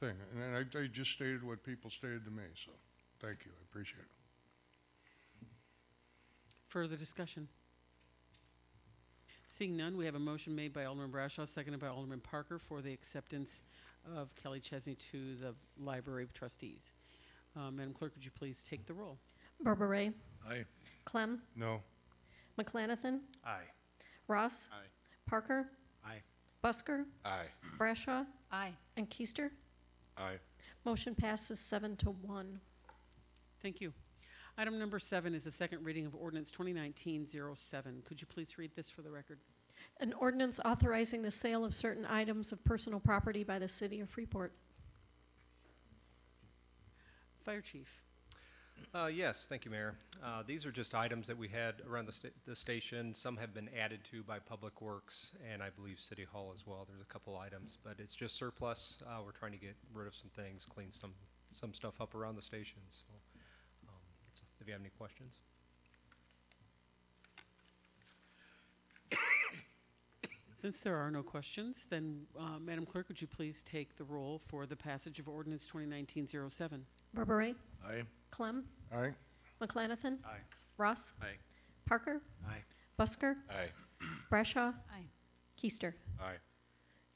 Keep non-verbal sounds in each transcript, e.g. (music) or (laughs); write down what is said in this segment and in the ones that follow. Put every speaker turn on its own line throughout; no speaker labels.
thing, and I, I just stated what people stated to me, so, thank you, I appreciate it.
Further discussion? Seeing none, we have a motion made by Alderman Bradshaw, seconded by Alderman Parker for the acceptance of Kelly Chesney to the Library of Trustees. Uh, Madam Clerk, would you please take the roll?
Berberay.
Aye.
Clem.
No,
McLanathan.
Aye.
Ross.
Aye.
Parker.
Aye.
Busker.
Aye.
Brashaw.
Aye.
And Keister.
Aye.
Motion passes seven to one.
Thank you. Item number seven is the second reading of ordinance 2019-07. Could you please read this for the record?
An ordinance authorizing the sale of certain items of personal property by the city of Freeport.
Fire Chief.
Uh, Yes, thank you, Mayor. Uh, These are just items that we had around the sta- the station. Some have been added to by Public Works and I believe City Hall as well. There's a couple items, but it's just surplus. Uh, We're trying to get rid of some things, clean some, some stuff up around the station, so um, it's- if you have any questions.
Since there are no questions, then uh, Madam Clerk, would you please take the roll for the passage of ordinance 2019-07?
Berberay.
Aye.
Clem.
aye,
McLanathan.
Aye.
Ross.
Aye.
Parker.
Aye.
Busker.
Aye.
Brashaw.
Aye.
Keister.
Aye.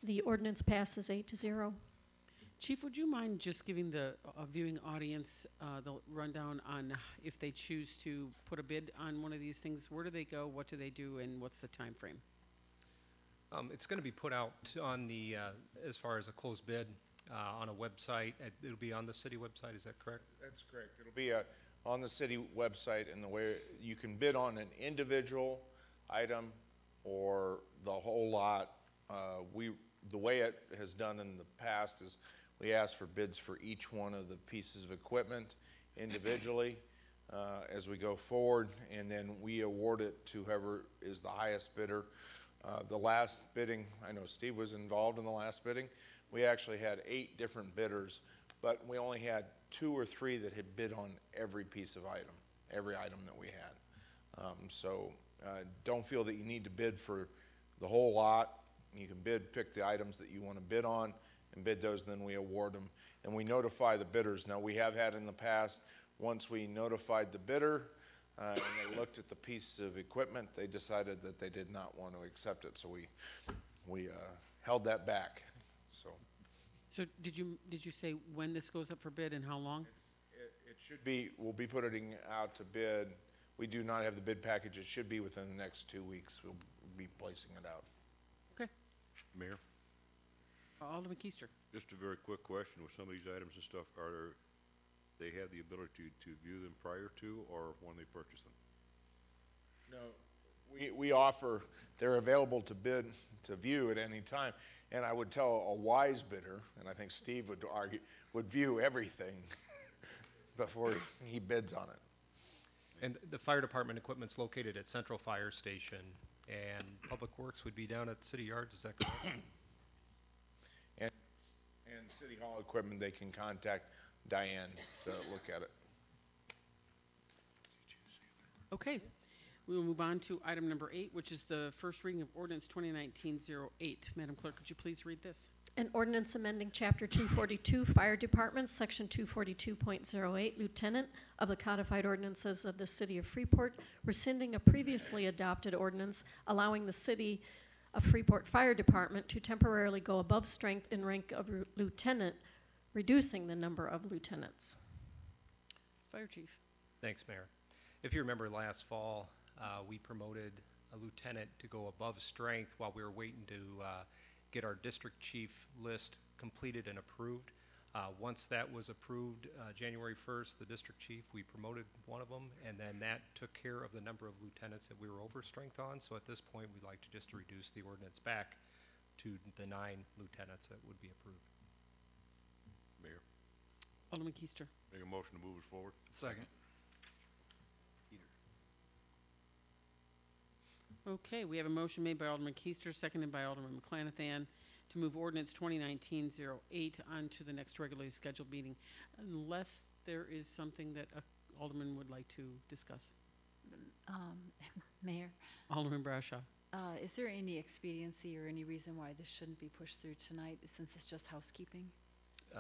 The ordinance passes eight to zero.
Chief, would you mind just giving the uh, viewing audience uh, the rundown on if they choose to put a bid on one of these things? Where do they go? What do they do? And what's the time frame?
Um, It's going to be put out on the, uh, as far as a closed bid, uh, on a website. It- It'll be on the city website, is that correct?
That's correct. It'll be uh, on the city website and the way, you can bid on an individual item or the whole lot. Uh, We, the way it has done in the past is we ask for bids for each one of the pieces of equipment individually uh, as we go forward, and then we award it to whoever is the highest bidder. Uh, The last bidding, I know Steve was involved in the last bidding, we actually had eight different bidders, but we only had two or three that had bid on every piece of item, every item that we had. Um, So uh, don't feel that you need to bid for the whole lot. You can bid, pick the items that you want to bid on, and bid those, then we award them. And we notify the bidders. Now, we have had in the past, once we notified the bidder, uh, and they looked at the piece of equipment, they decided that they did not want to accept it, so we, we uh, held that back, so.
So did you did you say when this goes up for bid and how long?
It, it should be, we'll be putting out to bid, we do not have the bid package, it should be within the next two weeks, we'll be placing it out.
Okay,
Mayor,
Alderman Keister.
just a very quick question, with some of these items and stuff, are there, they have the ability to view them prior to or when they purchase them?
No, we, we offer, they're available to bid, to view at any time. And I would tell a wise bidder, and I think Steve would argue, would view everything (laughs) before he bids on it.
And the fire department equipment's located at Central Fire Station and Public Works would be down at City Yards, is that correct?
And, and City Hall equipment, they can contact Diane to look at it.
Okay, we will move on to item number eight, which is the first reading of ordinance 2019-08. Madam Clerk, could you please read this?
An ordinance amending Chapter 242 Fire Departments, Section 242.08, Lieutenant of the Codified Ordinances of the City of Freeport, rescinding a previously adopted ordinance allowing the City of Freeport Fire Department to temporarily go above strength in rank of ru- lieutenant, reducing the number of lieutenants.
Fire Chief.
Thanks, Mayor. If you remember last fall, uh, we promoted a lieutenant to go above strength while we were waiting to uh, get our district chief list completed and approved. Uh, Once that was approved, uh, January 1st, the district chief, we promoted one of them, and then that took care of the number of lieutenants that we were over strength on. So at this point, we'd like to just reduce the ordinance back to the nine lieutenants that would be approved.
Mayor,
Alderman Keister.
make a motion to move us forward?
Second.
Okay, we have a motion made by Alderman Keister, seconded by Alderman McClanathan, to move ordinance 2019-08 on to the next regularly scheduled meeting, unless there is something that uh, Alderman would like to discuss.
Um, Mayor,
Alderman Bradshaw.
uh, is there any expediency or any reason why this shouldn't be pushed through tonight, since it's just housekeeping?